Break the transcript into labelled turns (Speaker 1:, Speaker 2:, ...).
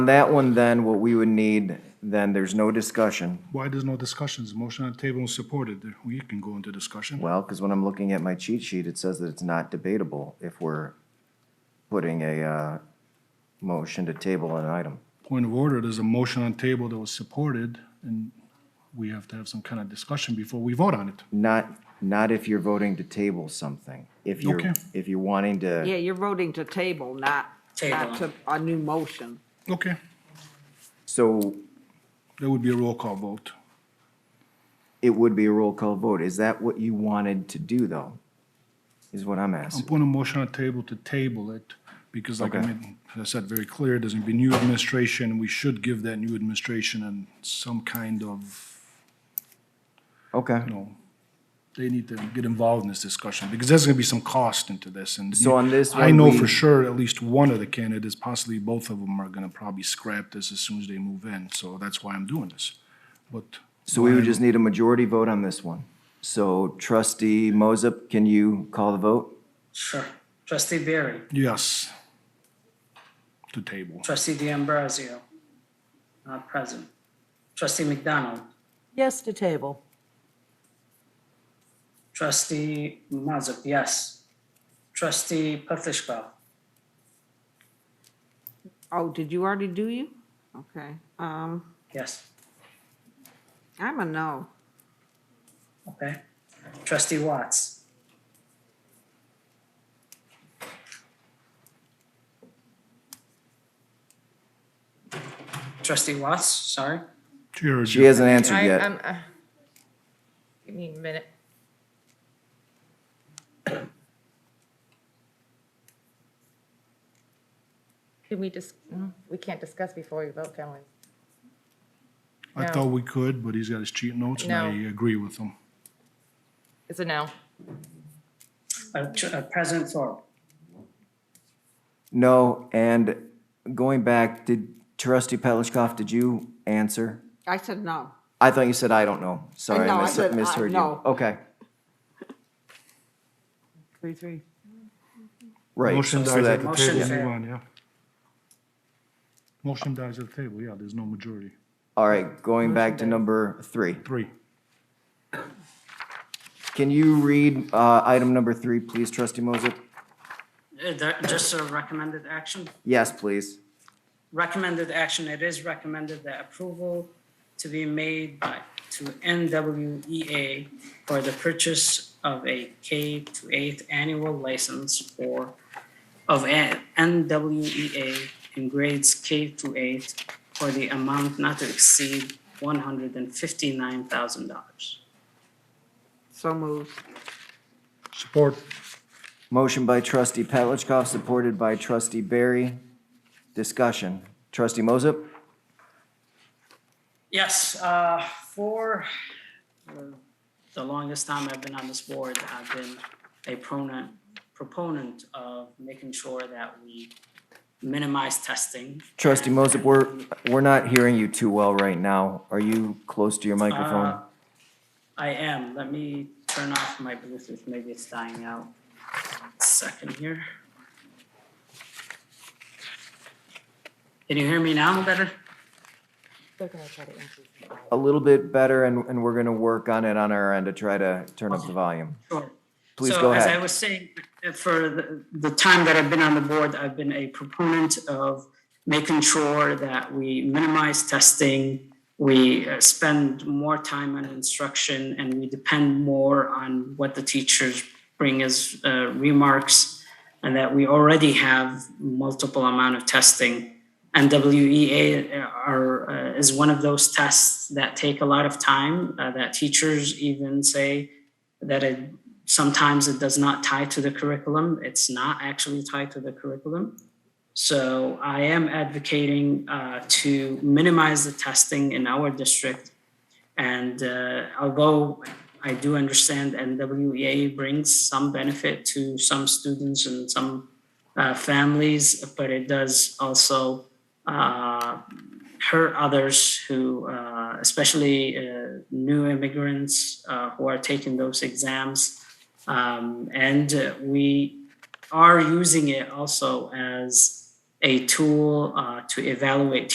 Speaker 1: On that one, then, what we would need, then, there's no discussion.
Speaker 2: Why there's no discussions? Motion on the table is supported. We can go into discussion.
Speaker 1: Well, because when I'm looking at my cheat sheet, it says that it's not debatable if we're putting a uh, motion to table an item.
Speaker 2: Point of order, there's a motion on the table that was supported, and we have to have some kind of discussion before we vote on it.
Speaker 1: Not, not if you're voting to table something. If you're,
Speaker 2: Okay.
Speaker 1: if you're wanting
Speaker 3: Yeah,
Speaker 1: to,
Speaker 3: you're voting to table, not, not to a new motion.
Speaker 2: Okay,
Speaker 1: so
Speaker 2: that would be a roll call vote.
Speaker 1: it would be a roll call vote. Is that what you wanted to do, though? Is what I'm
Speaker 2: I'm
Speaker 1: asking.
Speaker 2: putting a motion on the table to table it, because like I
Speaker 1: Okay.
Speaker 2: made, as I said very clear, there's gonna be new administration. We should give that new administration and some kind of,
Speaker 1: Okay.
Speaker 2: you know, they need to get involved in this discussion, because there's gonna be some cost into this, and
Speaker 1: So on this
Speaker 2: I
Speaker 1: one,
Speaker 2: know
Speaker 1: we-
Speaker 2: for sure at least one of the candidates, possibly both of them, are gonna probably scrap this as soon as they move in, so that's why I'm doing this. But
Speaker 1: So we would just need a majority vote on this one. So trustee Moses, can you call the vote?
Speaker 4: Sure. Trustee Barry,
Speaker 2: yes, to table.
Speaker 4: trustee D'Ambrosio, not present. Trustee McDonald,
Speaker 5: Yes to table.
Speaker 4: trustee Mazup, yes. Trustee Petlicoff,
Speaker 3: Oh, did you already do you? Okay, um,
Speaker 4: yes.
Speaker 3: I'm a no.
Speaker 4: Okay. Trustee Watts, trustee Watts, sorry.
Speaker 2: Chair,
Speaker 1: She hasn't answered
Speaker 6: I,
Speaker 1: yet.
Speaker 6: I'm, uh, give me a minute. Can we just, we can't discuss before we vote, can we?
Speaker 2: I thought we could, but he's got his cheat notes, and I
Speaker 6: No.
Speaker 2: agree with him.
Speaker 6: It's a no.
Speaker 4: Uh, tr- uh, President Thorpe,
Speaker 1: No, and going back, did trustee Petlicoff, did you answer?
Speaker 3: I said no.
Speaker 1: I thought you said, I don't know. Sorry,
Speaker 3: No,
Speaker 1: I
Speaker 3: I
Speaker 1: mis-
Speaker 3: said, uh,
Speaker 1: misheard you.
Speaker 3: no.
Speaker 1: Okay,
Speaker 5: Three, three.
Speaker 1: right.
Speaker 2: Motion
Speaker 1: so
Speaker 2: dies
Speaker 1: that-
Speaker 2: at the
Speaker 4: Motion
Speaker 2: table, move
Speaker 4: fail.
Speaker 2: on, yeah. Motion dies at the table, yeah, there's no majority.
Speaker 1: All right, going back to number three.
Speaker 2: Three.
Speaker 1: Can you read uh, item number three, please, trustee Moses?
Speaker 4: Uh, that- just a recommended action?
Speaker 1: Yes, please.
Speaker 4: recommended action, it is recommended that approval to be made by, to NWEA for the purchase of a K to eighth annual license for, of a- NWEA in grades K to eight for the amount not to exceed one hundred and fifty-nine thousand dollars.
Speaker 3: So moved.
Speaker 2: Support.
Speaker 1: Motion by trustee Petlicoff, supported by trustee Barry. Discussion. Trustee Moses?
Speaker 4: Yes, uh, for uh, the longest time I've been on this board, I've been a proponent, proponent of making sure that we minimize testing.
Speaker 1: Trustee
Speaker 4: and-
Speaker 1: Moses, we're, we're not hearing you too well right now. Are you close to your
Speaker 4: Uh,
Speaker 1: microphone?
Speaker 4: I am. Let me turn off my Bluetooth. Maybe it's dying out. Second here. Can you hear me now better?
Speaker 6: They're gonna try to increase it.
Speaker 1: A little bit better, and, and we're gonna work on it on our end to try to turn up the volume.
Speaker 4: Sure.
Speaker 1: Please
Speaker 4: so
Speaker 1: go
Speaker 4: as I
Speaker 1: ahead.
Speaker 4: was saying, uh, for the, the time that I've been on the board, I've been a proponent of making sure that we minimize testing, we uh, spend more time on instruction, and we depend more on what the teachers bring as uh, remarks, and that we already have multiple amount of testing. And WEA are, uh, is one of those tests that take a lot of time, uh, that teachers even say that it sometimes it does not tie to the curriculum. It's not actually tied to the curriculum. So I am advocating uh, to minimize the testing in our district. And uh, although I do understand NWEA brings some benefit to some students and some uh, families, but it does also uh, hurt others who, uh, especially uh, new immigrants uh, who are taking those exams. Um, and uh, we are using it also as a tool uh, to evaluate